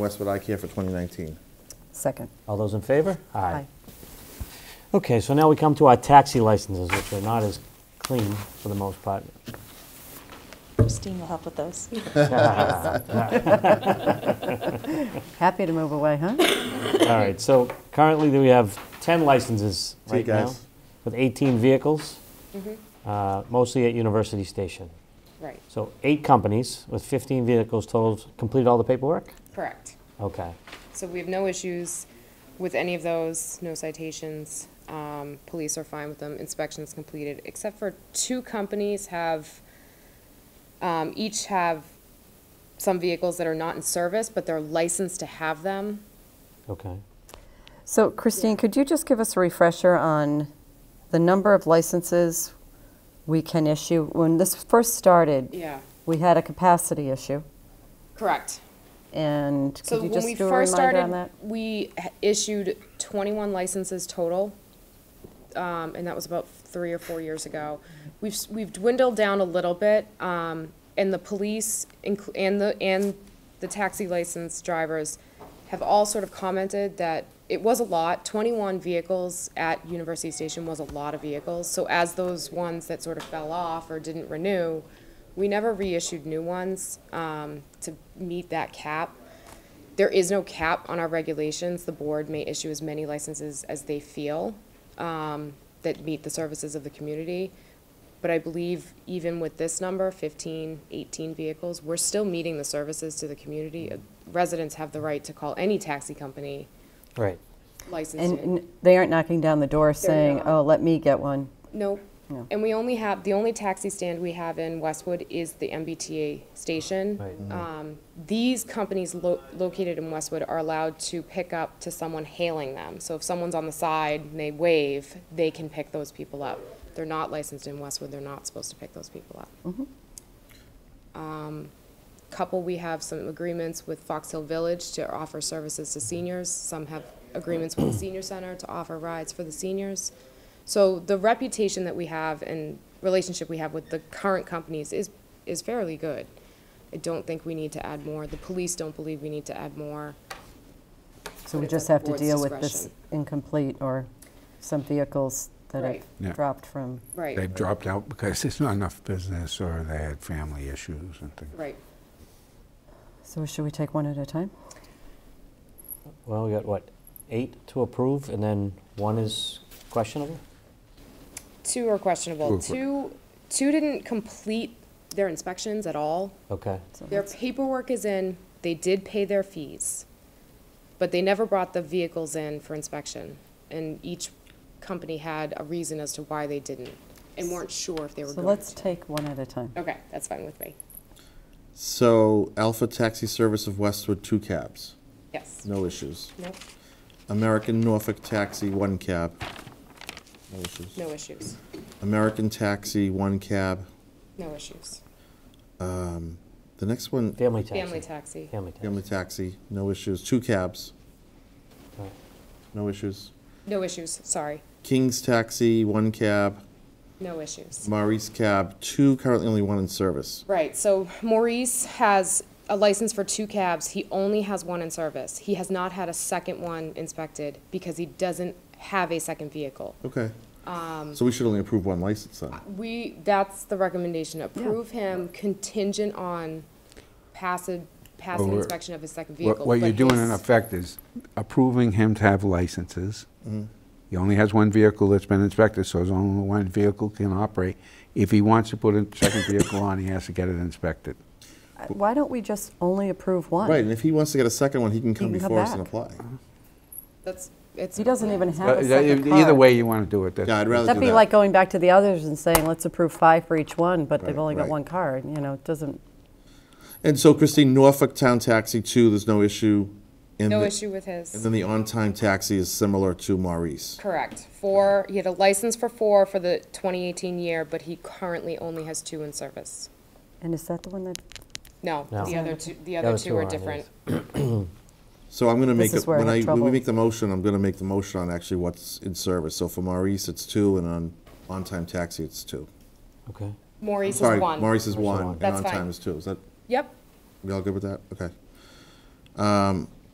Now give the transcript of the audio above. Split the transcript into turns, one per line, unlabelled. Westwood Eye Care for 2019.
Second.
All those in favor?
Aye.
Okay, so now we come to our taxi licenses, which are not as clean for the most part.
Christine will help with those.
Happy to move away, huh?
All right, so currently we have 10 licenses
See you
right now
guys.
with 18 vehicles, uh, mostly at University Station.
Right,
So eight companies with 15 vehicles total completed all the paperwork?
correct.
Okay.
So we have no issues with any of those, no citations. Um, Police are fine with them, inspections completed, except for two companies have, um, each have some vehicles that are not in service, but they're licensed to have them.
Okay.
So Christine, could you just give us a refresher on the number of licenses we can issue? When this first started,
Yeah.
we had a capacity issue,
Correct.
and
So
could you
when we
just do a
first
reminder on
started,
that?
we h- issued twenty-one licenses total, um, and that was about three or four years ago. We've, s- we've dwindled down a little bit, um, and the police inclu- and the, and the taxi license drivers have all sort of commented that it was a lot. Twenty-one vehicles at University Station was a lot of vehicles, so as those ones that sort of fell off or didn't renew, we never reissued new ones, um, to meet that cap. There is no cap on our regulations. The board may issue as many licenses as they feel um, that meet the services of the community. But I believe even with this number, 15, 18 vehicles, we're still meeting the services to the community. Residents have the right to call any taxi company
Right.
licensed.
And
to-
n- they aren't knocking down the door saying,
not.
oh, let me get one.
Nope. And we only have, the only taxi stand we have in Westwood is the MBTA station.
Right. Mhm.
Um, These companies lo- located in Westwood are allowed to pick up to someone hailing them. So if someone's on the side and they wave, they can pick those people up. They're not licensed in Westwood, they're not supposed to pick those people up. Um, Couple, we have some agreements with Fox Hill Village to offer services to seniors. Some have agreements with the senior center to offer rides for the seniors. So the reputation that we have and relationship we have with the current companies is, is fairly good. I don't think we need to add more. The police don't believe we need to add more.
So we
But it's
just
at
have
the
to
board's
deal with this
discretion.
incomplete or some vehicles that
Right.
Yeah.
have dropped from.
Right,
They've dropped out because there's not enough business or they had family issues and things.
right.
So should we take one at a time?
Well, we got what, eight to approve and then one is questionable?
Two are questionable.
Two are-
Two, two didn't complete their inspections at all.
Okay.
So
Their
that's-
paperwork is in, they did pay their fees, but they never brought the vehicles in for inspection. And each company had a reason as to why they didn't and weren't sure if they were
So
going
let's
to.
take one at a time.
Okay, that's fine with me.
So Alpha Taxi Service of Westwood, two cabs,
Yes.
no issues.
Nope,
American Norfolk Taxi, one cab, no issues.
no issues.
American Taxi, one cab.
No issues.
Um, The next one,
Family taxi.
Family taxi.
Family taxi.
Family Taxi, no issues. Two cabs,
All right.
no issues.
No issues, sorry.
King's Taxi, one cab.
No issues.
Maurice Cab, two, currently only one in service.
Right, so Maurice has a license for two cabs. He only has one in service. He has not had a second one inspected because he doesn't have a second vehicle.
Okay.
Um,
So we should only approve one license then.
We, that's the recommendation, approve him contingent on passing, passing
Well, we're-
inspection of his second vehicle.
What what you're
but
doing
his-
in effect is approving him to have licenses.
Mm-hmm.
He only has one vehicle that's been inspected, so his only one vehicle can operate. If he wants to put a second vehicle on, he has to get it inspected.
Uh, Why don't we just only approve one?
Right, and if he wants to get a second one, he can come
can come
before us and
back.
apply.
That's, it's.
He doesn't even have a second car.
uh, e-, Either way you want to do it, that's...
Yeah, I'd rather
That'd
do
be
that.
like going back to the others and saying, let's approve five for each one, but they've
Right,
only got
right.
one car, and, you know, it doesn't,
And so Christine, Norfolk Town Taxi, two, there's no issue. And
No
the-
issue with
And
his,
then the on-time taxi is similar to Maurice.
correct. Four, he had a license for four for the 2018 year, but he currently only has two in service.
and is that the one that,
No,
No.
the other two, the other
other two
two are
aren't his.
different.
So I'm gonna make,
is
it-
where I
when
have
I, when we
trouble.
make the motion, I'm gonna make the motion on actually what's in service. So for Maurice, it's two, and on, on-time taxi, it's two.
Okay.
Maurice is
Sorry,
one.
Maurice is one, and
That's fine.
on-time is two. Is that,
Yep,
we all good with that? Okay. Um,